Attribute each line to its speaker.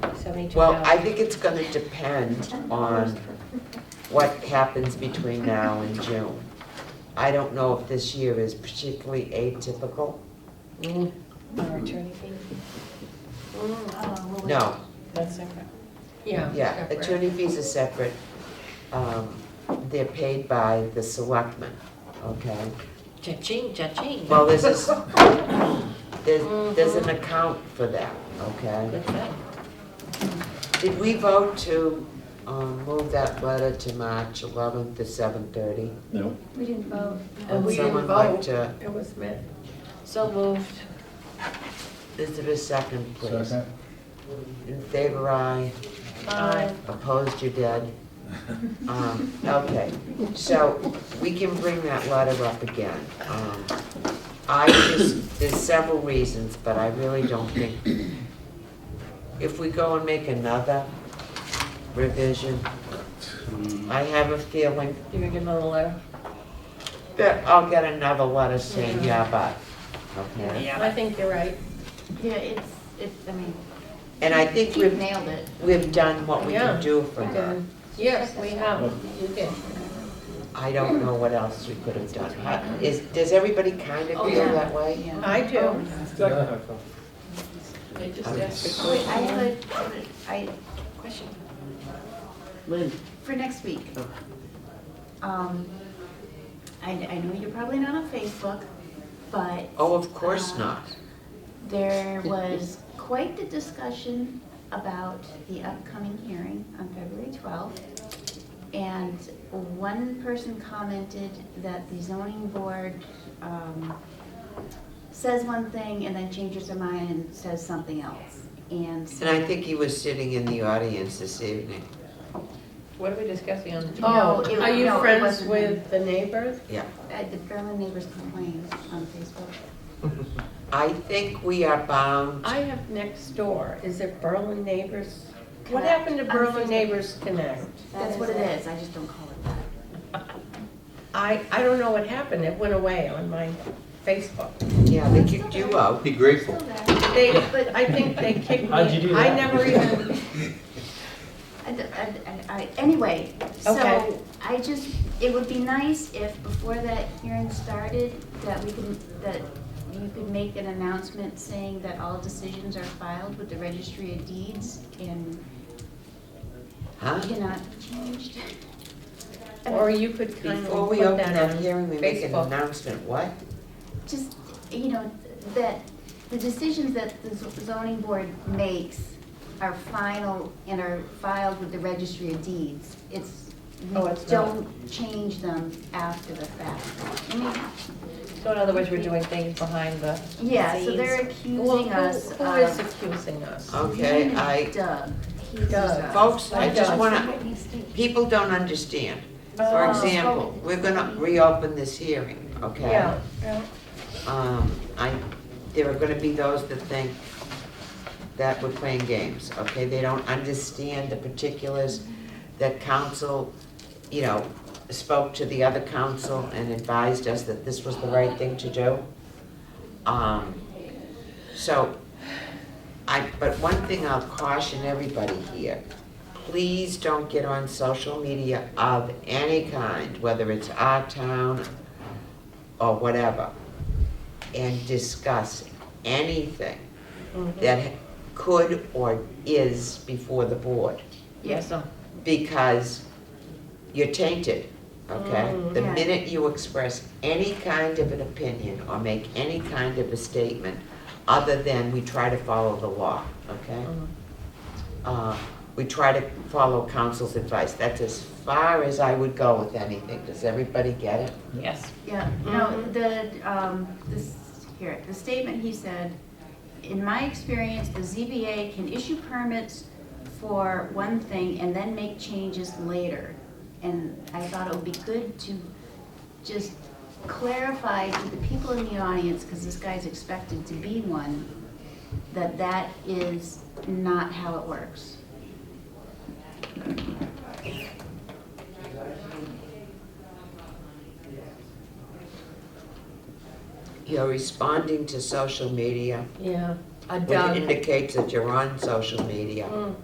Speaker 1: seventy-two
Speaker 2: Well, I
Speaker 1: thousand.
Speaker 2: think it's gonna depend on what happens between now and June. I don't know if this year is particularly atypical.
Speaker 1: Mm. Our attorney fee? Mm.
Speaker 2: No,
Speaker 3: That's separate.
Speaker 1: Yeah.
Speaker 2: yeah,
Speaker 1: separate.
Speaker 2: attorney fees are separate. Um, They're paid by the selectmen, okay?
Speaker 1: Cha-ching, cha-ching.
Speaker 2: Well, this is, there's, there's an account for that, okay?
Speaker 1: Good thing.
Speaker 2: Did we vote to um, move that letter to March 11th to 7:30?
Speaker 4: No,
Speaker 5: We didn't vote.
Speaker 1: And
Speaker 2: Would
Speaker 1: we didn't
Speaker 2: someone like
Speaker 1: vote.
Speaker 2: to,
Speaker 1: It was meant. So moved.
Speaker 2: is there a second, please?
Speaker 4: second?
Speaker 2: In favor, aye.
Speaker 1: Aye.
Speaker 2: Opposed, you're dead. Um, Okay, so we can bring that letter up again. Um, I just, there's several reasons, but I really don't think, if we go and make another revision, I have a feeling
Speaker 1: You gonna get another letter?
Speaker 2: that I'll get another letter saying, yeah, but, okay?
Speaker 1: I think you're right.
Speaker 5: Yeah, it's, it's, I mean,
Speaker 2: And I think
Speaker 5: Keith
Speaker 2: we've,
Speaker 5: nailed it.
Speaker 2: we've done what we
Speaker 1: Yeah.
Speaker 2: can do for her.
Speaker 1: Yes, we have. You did.
Speaker 2: I don't know what else we could have done. I- Is, does everybody kind of
Speaker 5: Oh,
Speaker 2: feel
Speaker 5: yeah.
Speaker 2: that way?
Speaker 5: Yeah.
Speaker 1: I do.
Speaker 3: They just
Speaker 2: I'm
Speaker 3: asked the
Speaker 5: Wait, I
Speaker 3: question.
Speaker 5: have a, I, question.
Speaker 2: Lynn?
Speaker 5: For next week. Um, I, I know you're probably not on Facebook, but
Speaker 2: Oh, of
Speaker 3: Uh,
Speaker 2: course not.
Speaker 5: there was quite the discussion about the upcoming hearing on February 12th. And one person commented that the zoning board um, says one thing and then changes their mind and says something else. And
Speaker 2: And I think he was sitting in the audience this evening.
Speaker 1: What are we discussing on?
Speaker 5: No,
Speaker 3: Oh,
Speaker 5: it-
Speaker 3: are you
Speaker 5: no, it
Speaker 3: friends
Speaker 5: wasn't.
Speaker 3: with the neighbors?
Speaker 2: Yeah.
Speaker 5: uh, the Berlin neighbors complained on Facebook.
Speaker 2: I think we are bound,
Speaker 3: I have next door, is it Berlin Neighbors? What
Speaker 5: Connect.
Speaker 3: happened to
Speaker 5: On
Speaker 3: Berlin
Speaker 5: Facebook.
Speaker 3: Neighbors Connect?
Speaker 5: That's what it is, I just don't call it that.
Speaker 3: I, I don't know what happened, it went away on my Facebook.
Speaker 2: yeah, they kicked you out.
Speaker 6: Be grateful.
Speaker 5: Still there.
Speaker 3: They, I think they kicked me.
Speaker 7: How'd you do
Speaker 3: I
Speaker 7: that?
Speaker 3: never even,
Speaker 5: I d- I d- I- I- Anyway,
Speaker 3: Okay.
Speaker 5: so I just, it would be nice if before that hearing started, that we can, that you could make an announcement saying that all decisions are filed with the registry of deeds and
Speaker 2: Huh?
Speaker 5: cannot be changed. I mean,
Speaker 3: or you could kind of
Speaker 2: Before
Speaker 3: put
Speaker 2: we open
Speaker 3: that
Speaker 2: that
Speaker 3: on
Speaker 2: hearing, we make an
Speaker 3: Facebook.
Speaker 2: announcement, what?
Speaker 5: Just, you know, that the decisions that the z- zoning board makes are final and are filed with the registry of deeds. It's,
Speaker 3: Oh, it's
Speaker 5: we don't change them after the fact. I mean,
Speaker 1: So in other words, we're doing things behind the.
Speaker 5: Yeah, so they're
Speaker 3: Well,
Speaker 5: accusing
Speaker 3: who-
Speaker 5: us uh, of.
Speaker 3: Who is accusing us?
Speaker 2: Okay,
Speaker 5: His name is
Speaker 2: I,
Speaker 5: Doug. He's
Speaker 3: Doug.
Speaker 2: folks, I just
Speaker 3: Doug.
Speaker 2: wanna, people don't understand.
Speaker 3: Oh. Uh,
Speaker 2: For example, we're gonna reopen this hearing, okay?
Speaker 3: Yeah, yeah.
Speaker 2: Um, I, there are gonna be those that think that we're playing games, okay? They don't understand the particulars that council, you know, spoke to the other council and advised us that this was the right thing to do. Um, so, I, but one thing I'll caution everybody here, please don't get on social media of any kind, whether it's our town or whatever, and discuss anything that could or is before the board,
Speaker 1: Yes.
Speaker 3: uh-huh.
Speaker 2: because you're tainted, okay?
Speaker 3: Mm,
Speaker 2: The
Speaker 5: yeah.
Speaker 2: minute you express any kind of an opinion or make any kind of a statement other than we try to follow the law, okay? Uh, We try to follow council's advice. That's as far as I would go with anything. Does everybody get it?
Speaker 1: Yes.
Speaker 5: Yeah, no, the, um, this, here, the statement he said, in my experience, the ZBA can issue permits for one thing and then make changes later. And I thought it would be good to just clarify to the people in the audience, because this guy's expected to be one, that that is not how it works.
Speaker 2: You're responding to social media,
Speaker 1: Yeah. A
Speaker 2: which
Speaker 1: Doug.
Speaker 2: indicates that you're on social media.
Speaker 1: Mm.